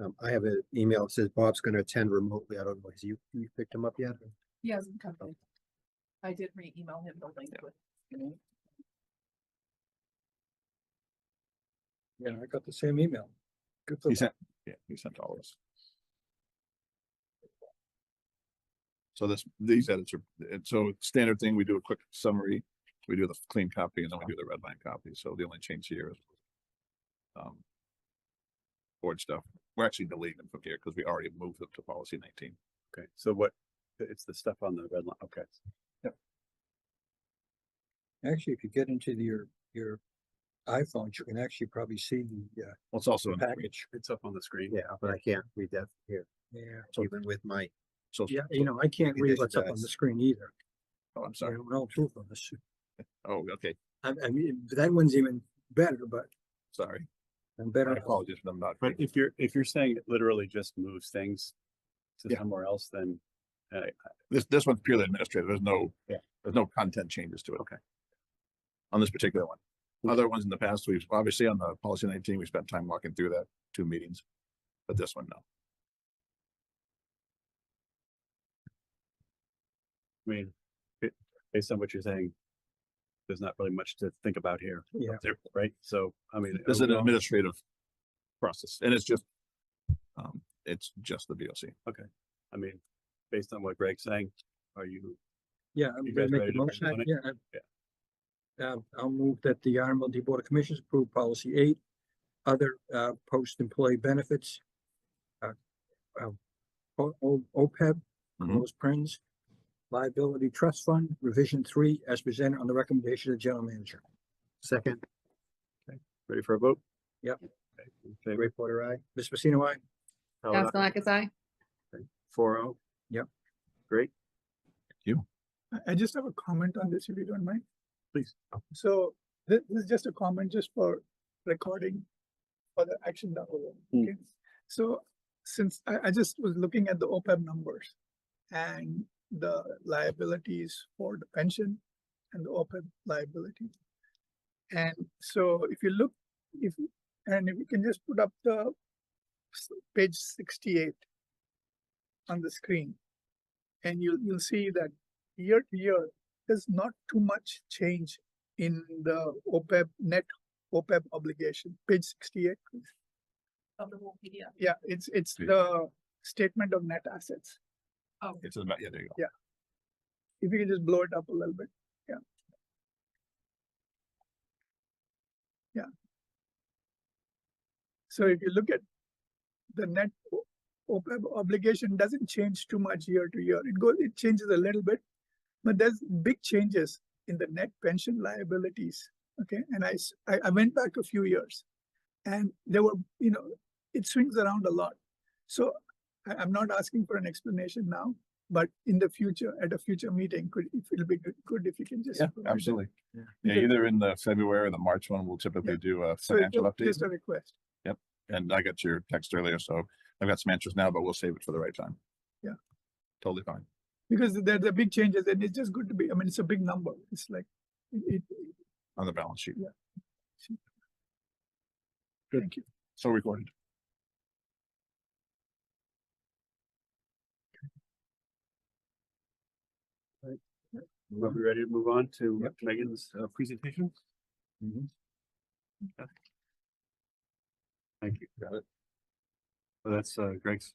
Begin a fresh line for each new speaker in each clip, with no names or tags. Um, I have an email that says Bob's gonna attend remotely. I don't know, has you, you picked him up yet?
He hasn't come in. I did re-email him the link with.
Yeah, I got the same email. Good for
He
them.
sent, yeah, he sent all this. So this, these edits are, and so standard thing, we do a quick summary, we do the clean copy and then we do the red line copy, so the only change here is. Um. Board stuff, we're actually deleting them from here because we already moved them to policy nineteen.
Okay, so what, it's the stuff on the red line, okay.
Actually, if you get into the- your, your iPhones, you can actually probably see the, uh,
Well, it's also,
the
in-
package.
It's up on the screen.
Yeah, but I can't read that here,
Yeah.
even with my,
so,
Yeah, you know, I can't
It
read
is
what's up on
nice.
the screen either.
oh, I'm
You
sorry,
know, We're all two of us.
oh, okay,
I, I mean, that one's even better, but,
sorry,
and
I
better.
apologize for them not.
But if you're, if you're saying it literally just moves things to
Yeah.
somewhere else, then
This, this one's purely administrative. There's no,
Yeah.
there's no content changes to it.
Okay.
On this particular one. Other ones in the past, we've obviously on the policy nineteen, we spent time walking through that two meetings, but this one, no.
I mean, ba- based on what you're saying, there's not really much to think about here.
Yeah.
There-
Right? So, I mean.
This is an
overall-
administrative process and it's just, um, it's just the VOC.
I mean, based on what Greg's saying, are you,
Yeah, I'm
You
gonna
guys
make
ready
the
to
motion.
vote on
I-
it?
Yeah. I- Uh, I'll move that the RMLD Board of Commissioners approve policy eight, other, uh, post-employee benefits. uh, uh, O, O, OPEB,
Mm-hmm.
Mhm.
those Prince, liability trust fund, revision three, as presented on the recommendation of the general manager.
second,
ready for a vote?
Yep.
Okay, in favor?
Ray Porter, I.
Ms. Messina, I,
Howard, aye.
Gastelakis, I.
Four oh.
Yep.
Great.
I- I just have a comment on this, if you don't mind.
Please.
So this, this is just a comment just for recording for the action that was.
Mm.
okay? So since I, I just was looking at the OPEB numbers and the liabilities for the pension and the OPEB liability. And so if you look, if, and if you can just put up the s- page sixty-eight on the screen. And you'll, you'll see that year to year, there's not too much change in the OPEB net OPEB obligation, page sixty-eight. please.
Of the whole PDF.
Yeah, it's, it's
Yeah.
the statement of net assets.
Oh,
It's about, yeah, there you go.
If you can just blow it up a little bit, yeah. Yeah. So if you look at the net o- OPEB obligation doesn't change too much year to year. It goes, it changes a little bit, but there's big changes in the net pension liabilities. Okay, and I, s- I- I went back a few years and there were, you know, it swings around a lot. So I, I'm not asking for an explanation now, but in the future, at a future meeting, could, if it'll be good, good if you can just.
Yeah,
provide that.
absolutely.
Yeah.
Yeah, either in the February or the March one, we'll typically do a
So
financial
ju-
update.
just a request.
And I got your text earlier, so I've got some answers now, but we'll save it for the right time.
Yeah.
Totally fine.
Because there, there are big changes and it's just good to be, I mean, it's a big number. It's like, it, it-
On the balance sheet.
thank you.
So recorded.
Are we ready to move on to Megan's uh, presentation? Okay. Thank you. Got it. So that's uh, Greg's.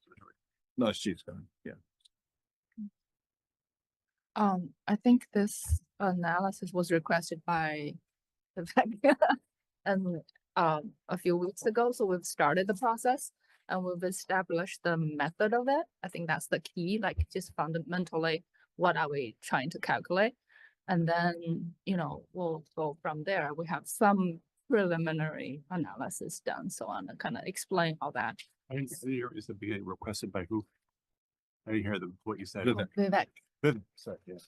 No, she's gone. Yeah.
Um, I think this analysis was requested by the bank. And, um, a few weeks ago, so we've started the process and we've established the method of it. I think that's the key, like just fundamentally, what are we trying to calculate? And then, you know, we'll go from there. We have some preliminary analysis done, so I'm gonna kind of explain all that.
I didn't see here is the being requested by who? I didn't hear the, what you said.
Vivek.
Vivek,
Vivek, sorry, yes.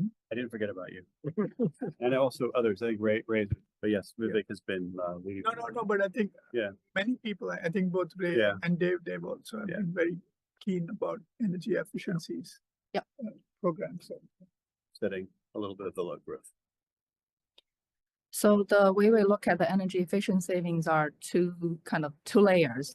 I didn't forget about you. And also others, I think Ray, Ray, but yes, Vivek has been uh, leading.
No, no, no, but I think.
Yeah.
Many people, I I think both Ray
Yeah.
and Dave, Dave also have
Yeah.
been very keen about energy efficiencies.
Yep.
uh, Programs, so.
Setting a little bit of the low growth.
So the way we look at the energy efficient savings are two kind of two layers.